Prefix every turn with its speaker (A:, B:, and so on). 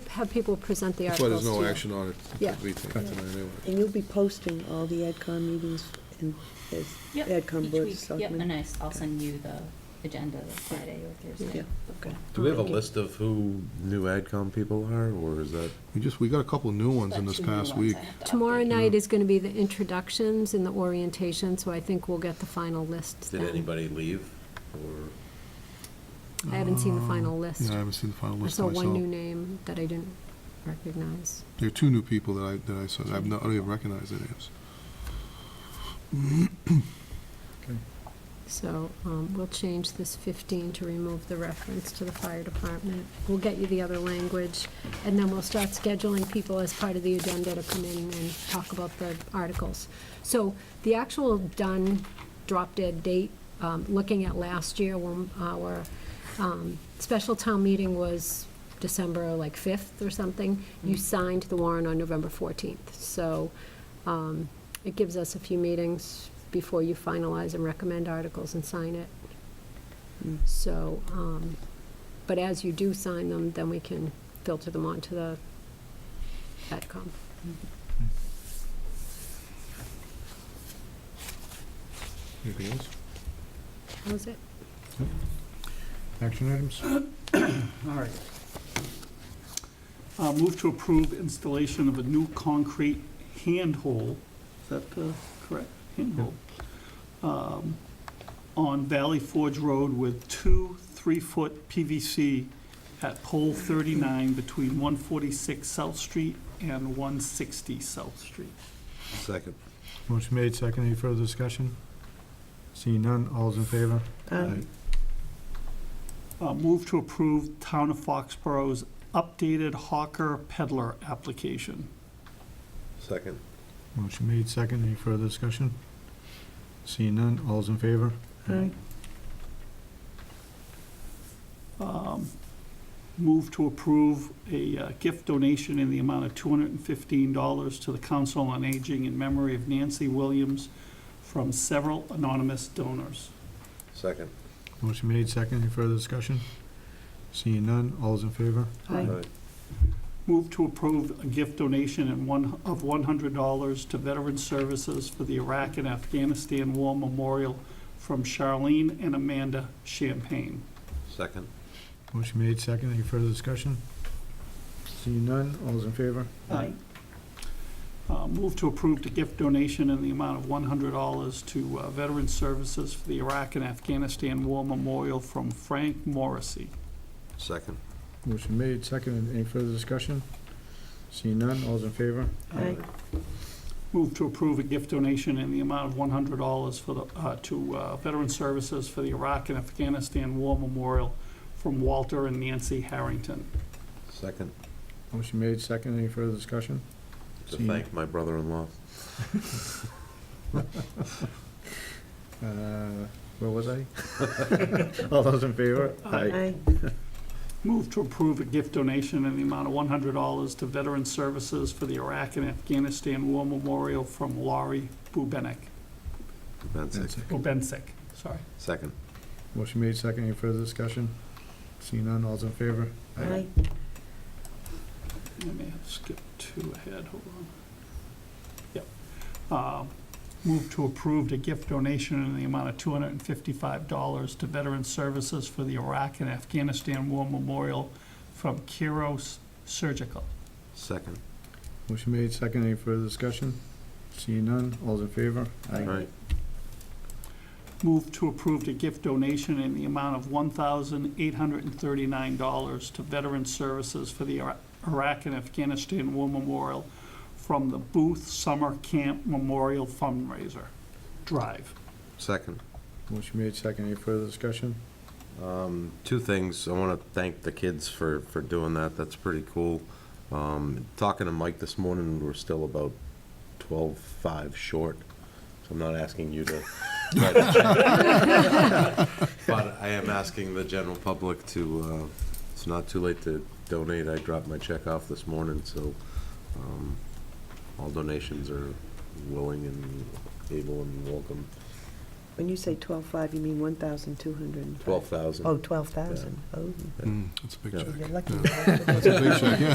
A: have people present the
B: That's why
A: articles
B: there's
A: to you.
B: no action on it.
A: Yeah.
B: We take it tonight anyway.
C: And you'll be posting all the AdCom meetings and as
D: Yep,
C: AdCom
D: each
C: Board of
D: week. Yep, and
C: Selectmen?
D: I, s- I'll send you the agenda the Friday or Thursday.
C: Yeah, okay.
E: Do we have a
C: Okay.
E: list of who new AdCom people are, or is that?
B: We just, we got a couple new oones in
D: Got
B: this
D: two new
B: past
D: ones
B: week.
D: I have to
A: Tomorrow
D: update.
B: Mm-hmm.
A: night is gonna be the introductions and the orientation, so I think we'll get the final list
E: Did
A: then.
E: anybody leave? Or
A: I haven't seen the final list.
B: Ah, Yeah, I haven't seen the final
A: I
B: list
A: saw one new
B: myself.
A: name that I didn't recognize.
B: There are two new people that I, that I saw, I've not, I don't even recognize their names.
A: So um, we'll change this 15 to remove the reference to the fire department. We'll get you the other language, and then we'll start scheduling people as part of the agenda to come in and talk about the articles. So the actual done, drop-dead date, um, looking at last year, when our um, special town meeting was December like 5th or something, you signed the warrant on November 14th. So um, it gives us a few meetings before you finalize and recommend articles and sign it.
C: Mm.
A: So, um, but as you do sign them, then we can filter them onto the AdCom.
B: Anything else?
A: That was it.
F: Action items?
G: All right. Uh, Move to approve installation of a new concrete handhole, is that uh, correct? Handhole. Um, On Valley Forge Road with two three-foot PVC at pole 39 between 146 South Street and 160 South Street.
E: second?
F: Motion made, second. Any further discussion? Seeing none, all's in favor?
C: Um,
G: Uh, Move to approve Town of Foxborough's updated Hawker Peddler application.
E: Second.
F: Motion made, second. Any further discussion? Seeing none, all's in favor?
C: Aye.
G: um, move to approve a uh, gift donation in the amount of $215 to the Council on Aging in memory of Nancy Williams from several anonymous donors.
E: Second.
F: Motion made, second. Any further discussion? Seeing none, all's in favor?
C: Aye.
G: Move to approve a gift donation in one, of $100 to Veteran Services for the Iraq and Afghanistan War Memorial from Charlene and Amanda Champagne.
E: Second.
F: Motion made, second. Any further discussion? Seeing none, all's in favor?
G: Aye. Uh, Move to approve the gift donation in the amount of $100 to uh, Veteran Services for the Iraq and Afghanistan War Memorial from Frank Morrissey.
E: Second.
F: Motion made, second. Any further discussion? Seeing none, all's in favor?
C: Aye.
G: Move to approve a gift donation in the amount of $100 for the, uh, to uh, Veteran Services for the Iraq and Afghanistan War Memorial from Walter and Nancy Harrington.
E: Second.
F: Motion made, second. Any further discussion?
E: To
F: See.
E: thank my brother-in-law.
F: Uh, Where was I? All those in favor?
C: Aye.
G: Move to approve a gift donation in the amount of $100 to Veteran Services for the Iraq and Afghanistan War Memorial from Laurie Bubenik.
E: Bensick.
G: Obensick, sorry.
E: Second.
F: Motion made, second. Any further discussion? Seeing none, all's in favor?
C: Aye.
G: I may have skipped two ahead, hold on. Yep. Uh, Move to approve the gift donation in the amount of $255 to Veteran Services for the Iraq and Afghanistan War Memorial from Kiros Surgical.
E: Second.
F: Motion made, second. Any further discussion? Seeing none, all's in favor?
E: Aye.
G: Move to approve the gift donation in the amount of $1,839 to Veteran Services for the Ira- Iraq and Afghanistan War Memorial from the Booth Summer Camp Memorial Fundraiser Drive.
E: Second.
F: Motion made, second. Any further discussion?
E: Um, Two things. I want to thank the kids for, for doing that. That's pretty cool. Um, Talking to Mike this morning, we're still about 12.5 short, so I'm not asking you to. try to check. But I am asking the general public to, uh, it's not too late to donate. I dropped my check off this morning, so um, all donations are willing and able and welcome.
C: When you say twelve-five, you mean one thousand two hundred and five?
E: 12,000.
C: Oh, twelve thousand. Oh,
B: Mm, That's a big
E: Yeah.
B: check.
C: you're lucky.
B: That's a big check, yeah.